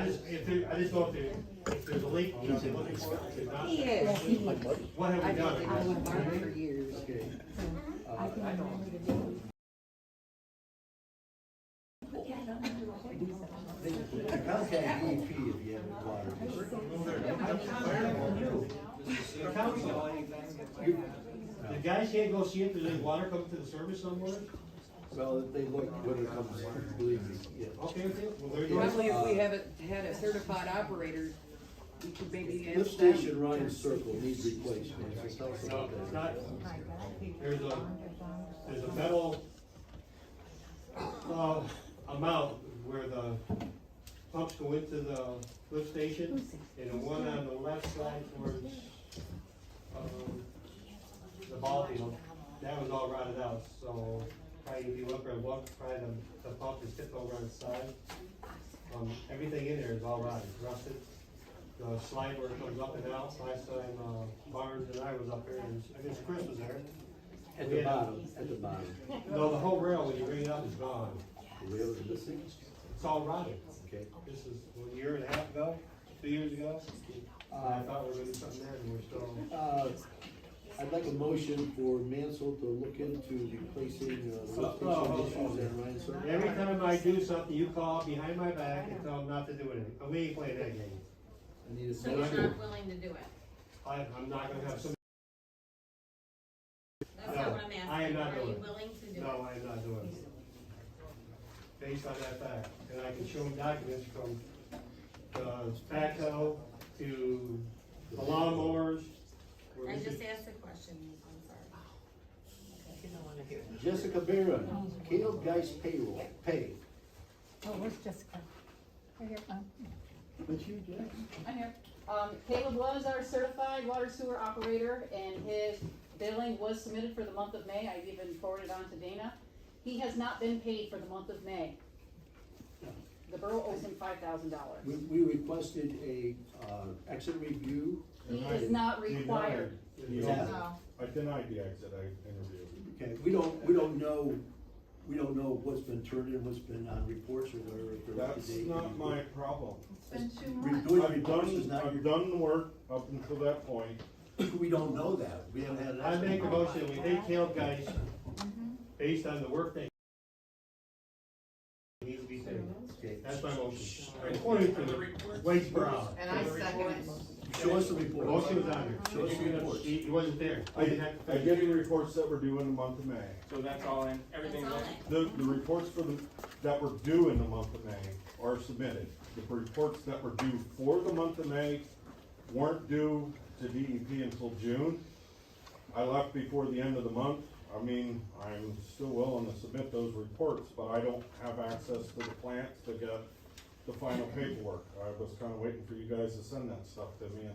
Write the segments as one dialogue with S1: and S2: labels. S1: just, if there, I just thought that if there's a leak, you know, they're looking for it, if not,
S2: He is, he is.
S1: what have
S2: I
S1: we
S2: don't, I
S1: done?
S2: went mine for years.
S3: Contact EP if you have a water.
S1: The council, the guys can't go see if there's any water coming to the service somewhere,
S3: Well, they look when it comes, believe me, yeah.
S1: okay with it? Well, there you go.
S4: Probably if we haven't had a certified operator, we could maybe
S3: Lift
S4: ask
S3: station
S4: them.
S3: Ryan Circle needs replacement. It's also-
S1: No, it's not, there's a, there's a metal, uh, amount where the pumps go into the lift station, and the one on the left side towards, um, the ball field, that was all rotted out, so probably if you look or walk, probably the, the pump is tipped over on its side. Um, everything in there is all rotted, rusted, the slide where it comes up and out, last time, uh, Barnes and I was up here, and I guess Chris was there.
S3: At the bottom, at the bottom.
S1: No, the whole rail, when you bring it up, is gone,
S3: The rail is missing,
S1: it's all rotted.
S3: okay?
S1: This is a year and a half ago, two years ago, and I thought we were gonna do something there, and we're still,
S3: Uh, I'd like a motion for Mansell to look into replacing, uh, the lift
S1: Oh, oh,
S3: station
S1: oh.
S3: issues at Ryan Circle.
S1: every time I do something, you call behind my back and tell them not to do anything, but we ain't playing that game.
S3: I need a
S5: So you're
S3: motion.
S5: not willing to do it?
S1: I, I'm not gonna have some,
S5: That's
S1: No,
S5: not what I'm
S1: I am
S5: asking.
S1: not
S5: Are you
S1: doing it.
S5: willing to do it?
S1: no, I'm not doing it. Based on that fact, and I can show them documents from the backhoe to the lawnmowers. where
S5: I
S1: we
S5: just
S1: could-
S5: asked a question, I'm sorry.
S3: Jessica Barron, Caleb Geis payroll, pay.
S6: Oh, where's Jessica? Right here, um,
S3: But you, Jess?
S7: I'm here. Um, Caleb was our certified water sewer operator, and his billing was submitted for the month of May, I even forwarded on to Dana. He has not been paid for the month of May. The borough owes him five thousand dollars.
S3: We, we requested a, uh, exit review,
S7: He is not required.
S3: Yeah.
S8: I denied the exit, I interviewed.
S3: okay, we don't, we don't know, we don't know what's been turned in, what's been on reports or whatever. if there was a
S8: That's
S3: date.
S8: not my problem.
S3: Redoing
S8: I've
S3: reports
S8: done,
S3: is not,
S8: I've done the work up until that point.
S3: we don't know that, we haven't had an
S1: I
S3: exit.
S1: make a motion, we pay Caleb guys based on the work they. Needs to be paid,
S3: Okay.
S1: that's my motion, according to the wage per hour.
S9: And I second it.
S3: Show us the report.
S1: Motion was on there,
S3: Show us the reports.
S1: he, he wasn't there.
S8: I, I get the reports that were due in the month of May.
S10: So that's all in, everything's
S5: That's all
S10: in?
S5: in.
S8: The, the reports for the, that were due in the month of May are submitted. The reports that were due for the month of May weren't due to DEP until June. I left before the end of the month. I mean, I'm still willing to submit those reports, but I don't have access to the plants to get the final paperwork. I was kinda waiting for you guys to send that stuff to me and.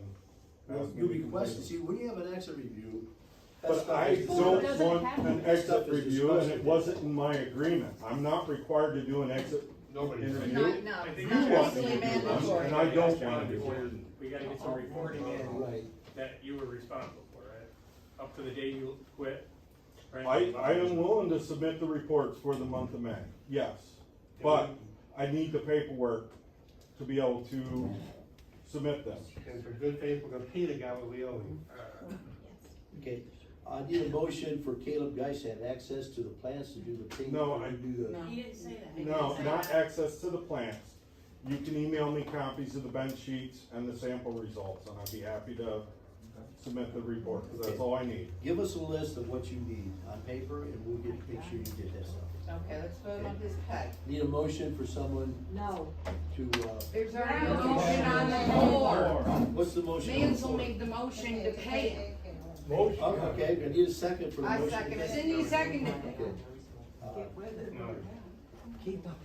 S3: Well,
S8: ask me
S3: You
S8: to
S3: requested,
S8: complete it.
S3: see, when you have an exit review. that
S8: But
S3: stuff
S8: I
S3: is-
S8: don't
S7: doesn't
S8: want
S7: happen.
S8: an
S3: Stuff
S8: exit
S3: is
S8: review, and it
S3: discussed.
S8: wasn't in my agreement. I'm not required to do an exit
S1: Nobody.
S8: interview.
S9: Not, no,
S10: I
S9: it's
S10: think
S9: not
S10: you want
S9: legally
S10: me to do that.
S9: mandatory.
S8: And I don't wanna do
S10: Before-
S8: it.
S10: We gotta get some reporting in
S3: Right,
S10: that you were responsible for, right? Up to the day you quit,
S8: I,
S10: right?
S8: I am willing to submit the reports for the month of May, yes, but I need the paperwork to be able to submit them.
S1: And for good faith, we're gonna pay the guy what we owe him.
S3: okay, I need a motion for Caleb Geis to have access to the plants to do the thing.
S8: No, I-
S3: Do the.
S5: You didn't say that.
S8: No, not access to the plants. You can email me copies of the bench sheets and the sample results, and I'd be happy to submit the report, 'cause that's all I need.
S3: Give us a list of what you need on paper and we'll get, make sure you get that stuff.
S9: Okay, let's vote on his pay.
S3: Need a motion for someone
S2: No.
S3: to, uh,
S4: There's already a
S2: Wow.
S4: motion on the floor.
S3: what's the motion? on the
S4: Mansell
S3: floor?
S4: made the motion to pay it.
S3: Oh, Okay, I need a second for the
S9: I
S3: motion.
S9: second it.
S4: Cindy seconded it.
S3: Okay. Uh,
S2: Keep up.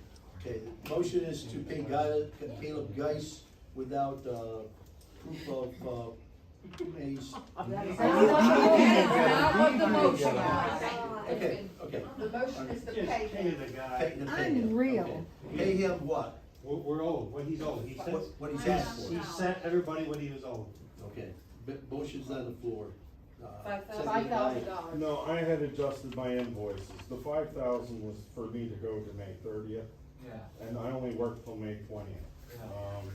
S3: Okay, the motion is to pay Guy- Caleb Geis without, uh, proof of, uh, May's.
S4: That's not what the motion was.
S3: Okay, okay.
S9: The motion is to
S1: Just
S9: pay
S1: pay
S9: him.
S1: the
S3: Pay-
S1: guy,
S3: to pay him,
S6: Unreal.
S3: okay. Pay him what?
S1: we're, we're owed, what he's owed, he
S3: What,
S1: sent,
S3: what he's asked
S1: he
S3: for.
S1: sent everybody what he was owed.
S3: Okay, but motion's on the floor. Uh,
S7: Five
S3: seconded
S7: thousand.
S3: by-
S7: Five thousand dollars.
S8: No, I had adjusted my invoices. The five thousand was for me to go to May thirtieth,
S11: Yeah.
S8: and I only worked till May twentieth. Um,